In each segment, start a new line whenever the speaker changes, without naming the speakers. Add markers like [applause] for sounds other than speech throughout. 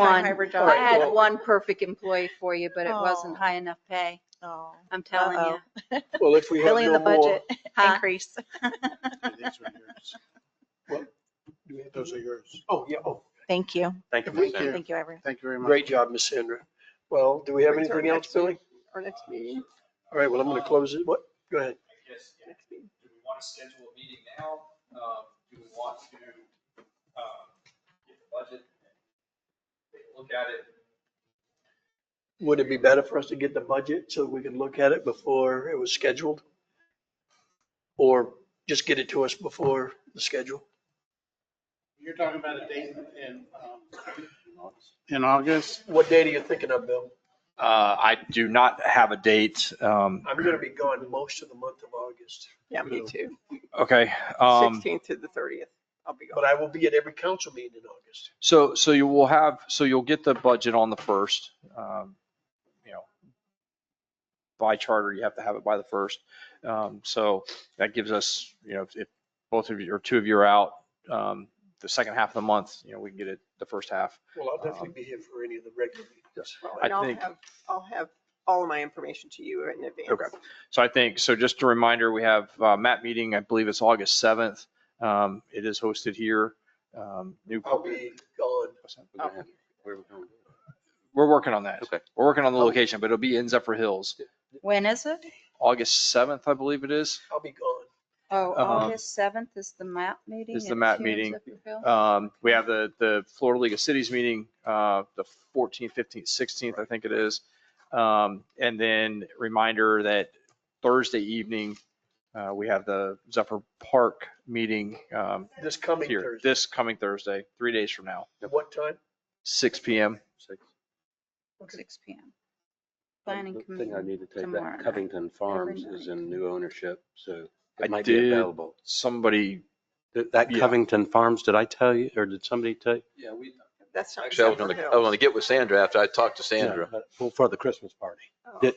One.
hybrid job.
I had one perfect employee for you, but it wasn't
Oh.
high enough pay.
Oh,
I'm telling you.
Uh-oh.
Well, if we have
Really in
no
the
more. [laughs]
budget
Huh?
increase.
These are yours.
Well, do we have
Those
those?
are yours.
Oh, yeah. Oh,
Thank you.
Thank you,
If we
Ms.
can-
Andrews.
Thank you, everyone.
Thank you very much.
great job, Miss Sandra. Well, do we have
Wait till our
anything else,
next
Billy?
our next meeting. Um,
All right, well, I'm going to close it. What? Go ahead.
Yes, yeah. do we want to schedule a meeting now? Um, Do we want to um, get the budget, take a look at it?
Would it be better for us to get the budget so we could look at it before it was scheduled? Or just get it to us before the schedule?
You're talking about a date in, um, in August?
What date are you thinking of, Bill?
Uh, I do not have a date. Um,
I'm going to be gone most of the month of August,
Yeah, me too.
okay. Um,
16th to the 30th, I'll be
but
gone.
I will be at every council meeting in August.
so, so you will have, so you'll get the budget on the first, um, you know, by charter, you have to have it by the first. Um, so that gives us, you know, if- if both of you or two of you are out, um, the second half of the month, you know, we can get it the first half.
Well, I'll definitely be here for any of the regular meetings.
Well,
I
and I'll
think-
have, I'll have all of my information to you in advance.
Okay. So I think, so just a reminder, we have uh, MAP meeting, I believe it's August 7th. Um, It is hosted here. Um, New.
I'll be gone.
Oh.
Where are we going?
We're working on that.
Okay. Oh.
We're working on the location, but it'll be in Zephyr Hills,
When is it?
August 7th, I believe it is.
I'll be gone.
Oh,
Uh-huh.
August 7th is the MAP meeting.
Is the
at
MAP
Hughes
meeting.
up in Phil?
Um, We have the, the Florida League of Cities meeting, uh, the 14th, 15th, 16th, I think it is. Um, And then reminder that Thursday evening, uh, we have the Zephyr Park meeting um,
This coming
here,
Thursday.
this coming Thursday, three days from now,
At what time?
6 PM.
Six.
6 PM. Planning
The thing I
committee.
need to take
tomorrow
back,
night,
Covington Farms
every
is
night.
in new ownership, so
I
it might be
did-
available.
Somebody,
That- That
Yeah.
Covington Farms, did I tell you, or did somebody tell you?
Yeah, we,
That's not.
Actually, I was going to, I was going to get with Sandra after I talked to Sandra.
No, but- Well, for the Christmas party.
It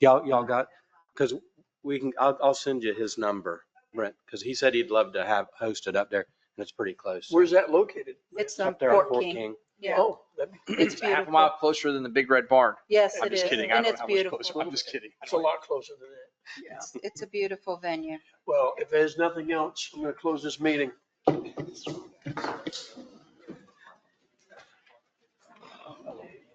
Y'all, y'all got, because we can, I'll, I'll send you his number, Brent, because he said he'd love to have hosted up there, and it's pretty close.
Where's that located?
It's on
Up there on
Fort
Fort
King.
King.
Yeah,
Oh, that'd be-
it's [clears throat] a half a mile closer than the Big Red Barn.
yes,
I'm
it
just
is.
kidding. I
And
don't know
it's
how much
beautiful.
closer. I'm just kidding.
it's a lot closer than that.
It's- It's a beautiful venue.
Well, if there's nothing else, I'm going to close this meeting.